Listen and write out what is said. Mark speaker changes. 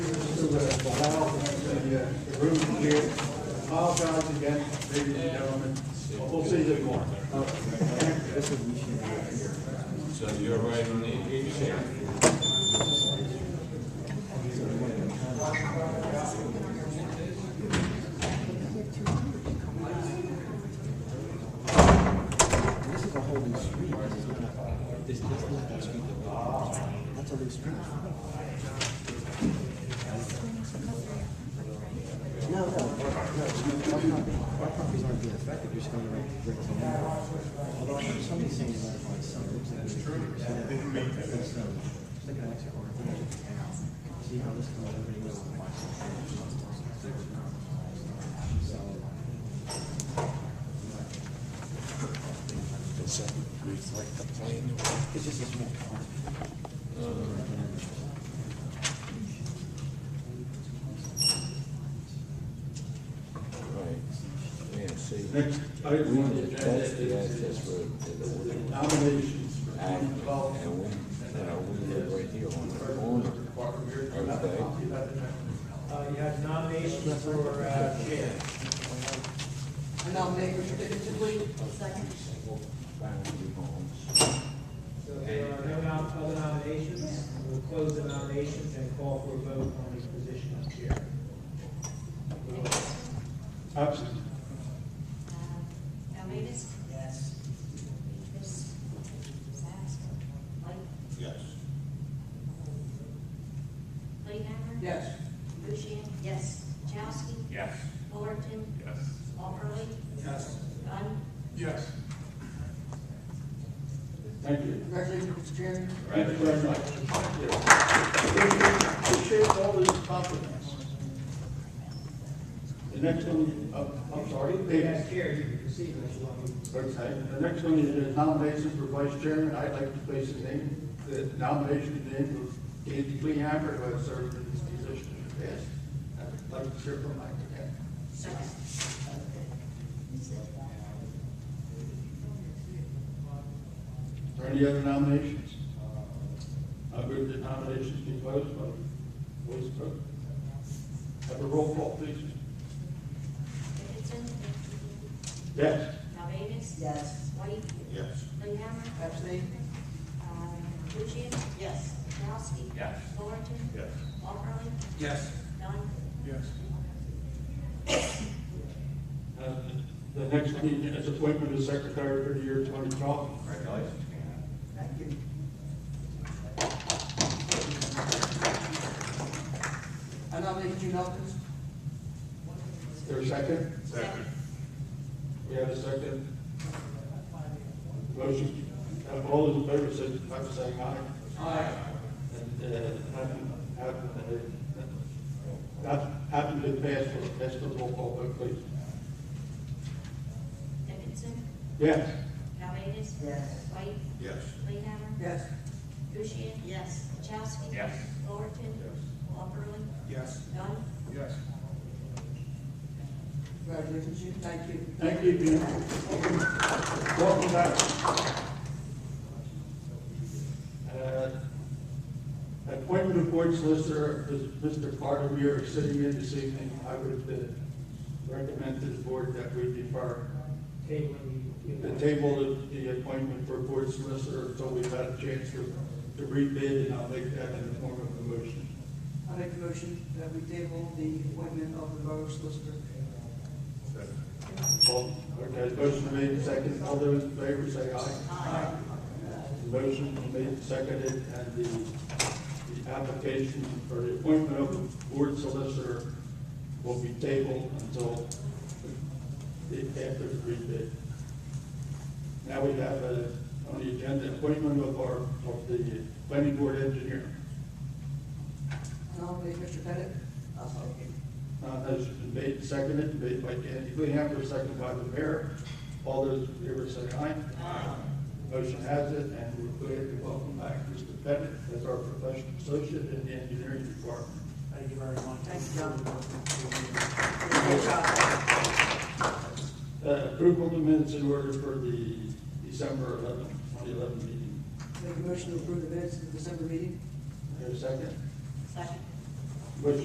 Speaker 1: the, the law, the, uh, the rules here. Apologize again, ladies and gentlemen. We'll see you tomorrow.
Speaker 2: So you're right on the issue.
Speaker 3: This is a whole new street. This is not, this, this is not the street that we, that's a new street. No, no, no, no, our properties, our properties aren't being affected, you're just going to rent, rent to them. Although I heard somebody saying that about some, it looks like. It's true. That's, um, it's like an exit or a thing. See how this goes, everybody goes. So, It's just a small car.
Speaker 2: Right. Yeah, see,
Speaker 1: Next
Speaker 2: we
Speaker 1: item on the
Speaker 2: need to
Speaker 1: agenda
Speaker 2: touch the
Speaker 1: is
Speaker 2: access road to the water.
Speaker 1: nominations.
Speaker 2: Act, and we, you know, we live right here on the corner. Okay,
Speaker 4: Uh, you have nominations for, uh, chair.
Speaker 5: I nominate Richard Tipley. Second.
Speaker 2: Foundry Homes.
Speaker 4: So if there are no nom- other nominations, we'll close the nominations and call for a vote on the position of chair.
Speaker 1: Absent.
Speaker 6: Almanis? Yes. Davis? Light?
Speaker 2: Yes.
Speaker 6: Playhammer?
Speaker 5: Yes.
Speaker 6: Bushian? Yes. Chowski?
Speaker 2: Yes.
Speaker 6: Fullerton?
Speaker 2: Yes.
Speaker 6: Walperly?
Speaker 1: Yes.
Speaker 6: Dunn?
Speaker 1: Yes. Thank you.
Speaker 5: Congratulations, Mr. Chairman.
Speaker 1: Thank you very much. Appreciate all these compliments. The next one, uh, I'm sorry, David.
Speaker 4: As chair, you can proceed unless you want me.
Speaker 1: Okay, the next one is uh, nominations for vice chairman. I'd like to place the name, the nomination name of Andy Lehammer, who has served in this position in the past. I'd like to hear from Mike again.
Speaker 6: Second.
Speaker 1: Are there any other nominations? Uh, I move that nominations be closed by voice vote. Have a roll call, please.
Speaker 6: Dickinson?
Speaker 1: Yes.
Speaker 6: Almanis?
Speaker 5: Yes.
Speaker 6: White?
Speaker 1: Yes.
Speaker 6: Playhammer?
Speaker 5: Abstain.
Speaker 6: Uh, Bushian?
Speaker 5: Yes.
Speaker 6: Chowski?
Speaker 2: Yes.
Speaker 6: Fullerton?
Speaker 1: Yes.
Speaker 6: Walperly?
Speaker 1: Yes.
Speaker 6: Dunn?
Speaker 1: Yes. The next one is appointment of secretary for the year 2012.
Speaker 2: Congratulations.
Speaker 5: Thank you. I nominate Gene Elkins.
Speaker 1: Is there a second?
Speaker 5: Second.
Speaker 1: We have a second. Motion, have all those in favor, signify by saying aye. Aye. And, uh, haven't, haven't, uh, not, haven't been passed, that's the roll call vote, please.
Speaker 6: Dickinson?
Speaker 1: Yes.
Speaker 6: Almanis?
Speaker 5: Yes.
Speaker 6: White?
Speaker 1: Yes.
Speaker 6: Playhammer?
Speaker 5: Yes.
Speaker 6: Bushian? Yes. Chowski?
Speaker 2: Yes.
Speaker 6: Fullerton? Yes. Walperly?
Speaker 1: Yes.
Speaker 6: Dunn?
Speaker 1: Yes.
Speaker 5: Congratulations, Gene. Thank you.
Speaker 1: Thank you, Jim. Welcome back. Uh, Appointment of board solicitor, Mr. Carter, we are sitting in this evening. I would uh, recommend to the board that we defer
Speaker 4: Table, you
Speaker 1: the table of the appointment for board solicitor until we've had a chance to to rebid, and I'll make that in the form of a motion.
Speaker 5: I make a motion that we table the appointment of the borough solicitor.
Speaker 1: All- Okay, motion made, and seconded. All those in favor say aye.
Speaker 5: Aye.
Speaker 1: Motion made and seconded, and the, the application for the appointment of the board solicitor will be tabled until the, after the rebid. Now we have uh, on the agenda, appointment of our, of the planning board engineer.
Speaker 5: I nominate Mr. Pettit. I'll second.
Speaker 1: Uh, motion been made and seconded, made by Andy Lehammer, seconded by the mayor. All those in favor say aye. Aye. Motion has it, and we're glad to welcome back Mr. Pettit as our professional associate in the engineering department.
Speaker 4: Thank you very much.
Speaker 5: Thank you, John.
Speaker 1: Good Uh, approval of the minutes in order for the December eleventh, twenty eleven meeting.
Speaker 5: Make a motion to approve the minutes of the December meeting.
Speaker 1: Is there a second?
Speaker 6: Second.